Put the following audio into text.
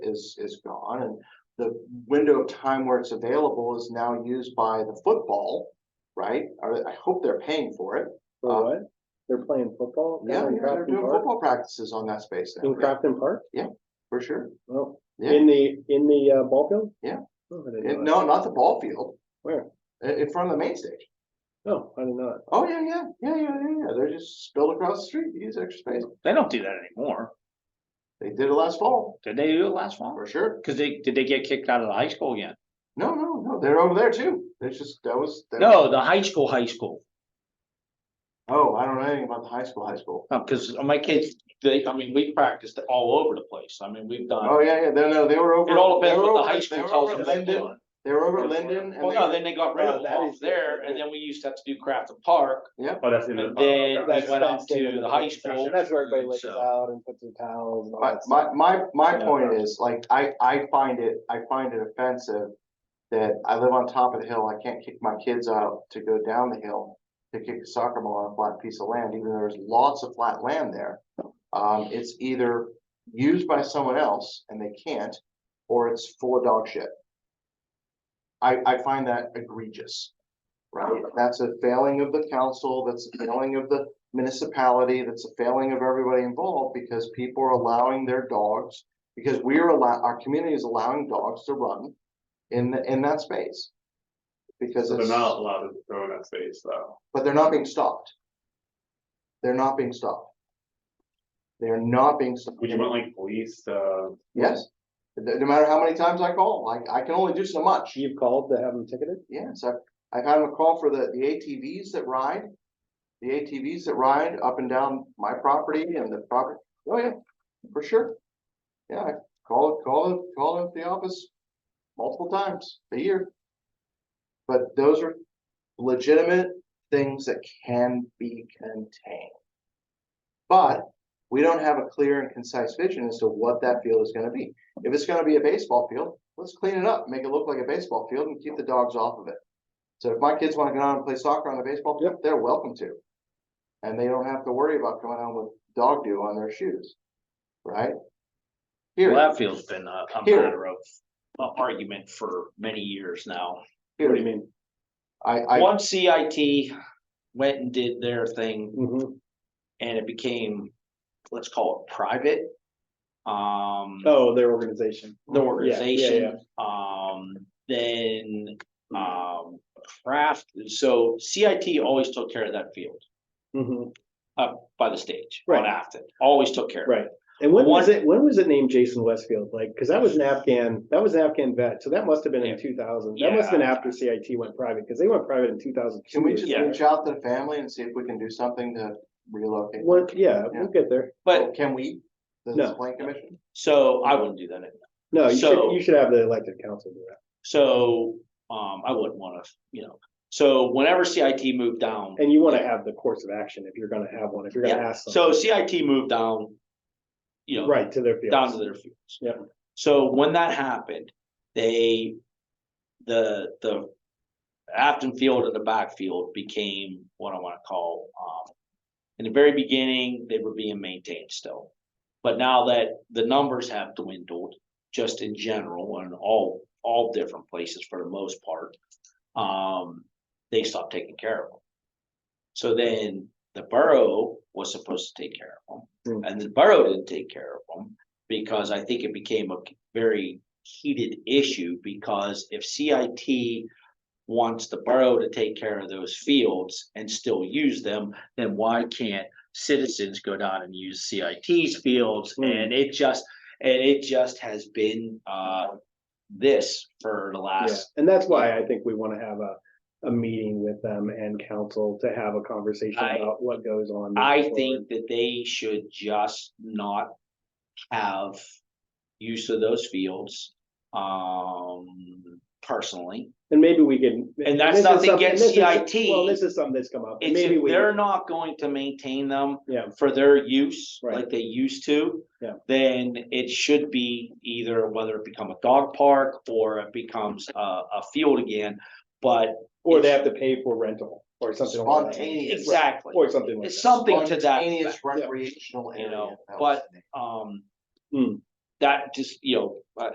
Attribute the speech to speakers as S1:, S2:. S1: is, is gone and the window of time where it's available is now used by the football, right? Or I hope they're paying for it.
S2: For what? They're playing football?
S1: Uh, Yeah,
S2: down in
S1: yeah, they're
S2: Crafton
S1: doing
S2: Park?
S1: football practices on that space now,
S2: In
S1: yeah,
S2: Crafton Park?
S1: for sure.
S2: Oh,
S1: Yeah.
S2: in the, in the uh, ball field?
S1: Yeah.
S2: Oh, I didn't
S1: It-
S2: know
S1: No, not the ball field.
S2: Where?
S1: I- In, front of the main stage.
S2: that. No, I did not.
S1: Oh, yeah, yeah, yeah, yeah, yeah, yeah. They're just spilled across the street, use extra space.
S3: They don't do that anymore.
S1: They did it last fall,
S3: Did they do it last fall?
S1: for sure.
S3: Cause they, did they get kicked out of the high school again?
S1: No, no, no, they're over there too. It's just, that was. that was-
S3: No, the high school, high school.
S1: Oh, I don't know anything about the high school, high school.
S3: No, cause my kids, they, I mean, we practiced all over the place. I mean, we've done,
S1: Oh, yeah, yeah, no, no, they were over.
S3: it all
S1: they
S3: depends
S1: were
S3: what the
S1: over-
S3: high
S1: they
S3: school
S1: were
S3: tells
S1: over
S3: them. they're
S1: Linden.
S3: doing.
S1: They were over Linden and
S3: Well, no,
S1: they,
S3: then they got rid of
S2: Well, that
S3: off
S2: is-
S3: there and then we used to have to do Craft Park.
S4: Oh, that's in
S1: Uh,
S3: And
S4: the.
S3: then
S2: That's-
S3: we went
S2: that's
S3: up
S2: staying
S3: to
S2: in
S3: the high
S2: construction.
S3: school.
S2: That's where everybody lays
S3: So-
S2: out and puts their towels and all
S1: my,
S2: that stuff.
S1: my, my, my
S3: Yeah.
S1: point is, like, I, I find it, I find it offensive. That I live on top of the hill, I can't kick my kids out to go down the hill to kick a soccer ball on a flat piece of land, even though there's lots of flat land there. Um, it's either used by someone else and they can't, or it's full of dog shit. I, I find that egregious, right? That's a failing of the council, that's a failing of the municipality, that's a failing of everybody involved because people are allowing their dogs, because we're allow, our community is allowing dogs to run in, the- in that space. Because
S4: So
S1: it's,
S4: they're not
S1: but
S4: allowed to throw in that space, though.
S1: they're not being stopped. They're not being stopped. They're not being stopped.
S4: Would you want like police, uh,
S1: Yes, no, no matter how many times I call, like, I can only do so much.
S2: You've called to have them ticketed?
S1: Yes, I've, I've had them call for the, the ATVs that ride. The ATVs that ride up and down my property and the property, oh yeah, for sure. Yeah, I call it, call it, call it the office multiple times a year. But those are legitimate things that can be contained. But we don't have a clear and concise vision as to what that field is gonna be. If it's gonna be a baseball field, let's clean it up, make it look like a baseball field and keep the dogs off of it. So if my kids wanna go out and play soccer on the baseball field, they're welcome to. And they don't have to worry about coming home with dog dew on their shoes, right?
S3: Well,
S1: Here,
S3: that field's been a, a
S1: Here.
S3: matter of uh, argument for many years now.
S2: What do
S1: here,
S2: you mean?
S1: I, I,
S3: Once CIT went and did their thing
S2: Mhm.
S3: and it became, let's call it private. Um,
S2: Oh, their organization.
S3: the
S2: Yeah, yeah,
S3: organization, um, then,
S1: Uh,
S3: um, craft, so CIT always took care of that field.
S2: yeah. Mhm.
S3: Up by the stage on
S2: Right.
S3: Afton, always took care of it.
S2: Right. And when was
S3: One-
S2: it, when was it named Jason Westfield? Like, cause that was an Afghan, that was an Afghan vet. So that must have been
S3: Yeah.
S2: in two thousand. That must have been
S3: Yeah.
S2: after CIT went private, cause they went private in two thousand two.
S1: can we just
S3: Yeah.
S1: reach out to the family and see if we can do something to relocate?
S2: Well, yeah,
S1: Yeah.
S2: we'll get there.
S3: But,
S1: Can we, the
S2: No.
S1: plan commission?
S3: so I wouldn't do that anymore.
S2: No, you
S3: So-
S2: should, you should have the elected council do that.
S3: So, um, I wouldn't wanna, you know, so whenever CIT moved down.
S2: And you wanna have the course of action if you're gonna have one, if you're gonna
S3: Yeah,
S2: ask them,
S3: So CIT moved down. You know,
S2: right, to their
S3: down to
S2: field.
S3: their fields.
S2: Yep.
S3: So when that happened, they, the, the. Afton Field and the backfield became what I wanna call, um. In the very beginning, they were being maintained still. But now that the numbers have dwindled, just in general, and all, all different places for the most part. Um, they stopped taking care of them. So then the borough was supposed to take care of them,
S2: Hmm.
S3: and the borough didn't take care of them. Because I think it became a very heated issue, because if CIT. Wants the borough to take care of those fields and still use them, then why can't citizens go down and use CIT's fields?
S2: Hmm.
S3: And it just, and it just has been, uh. This for the
S2: Yeah,
S3: last
S2: and that's why I think we wanna have a, a meeting with them and council to have a conversation
S3: I-
S2: about what goes on.
S3: I
S2: moving forward.
S3: think that they should just not have use of those fields, um, personally.
S2: And maybe we can.
S3: And that's
S2: this is
S3: nothing
S2: something-
S3: against
S2: this is-
S3: CIT.
S2: Well, this is something that's come up, and
S3: It's
S2: maybe
S3: if
S2: we,
S3: they're not going to maintain them
S2: yeah,
S3: for their use,
S2: Right.
S3: like they used to.
S2: Yeah.
S3: Then it should be either whether it become a dog park or it becomes a, a field again, but.
S2: or they
S3: it's-
S2: have to pay for rental or something. like that.
S1: Spontaneous.
S3: Exactly,
S2: Or something like
S3: it's
S2: that.
S3: something to that.
S1: Spontaneous
S3: effect.
S1: recreational
S3: You
S1: area.
S3: know,
S1: That
S3: but-
S1: was the name.
S3: Um.
S2: Hmm.
S3: that just, you know, I,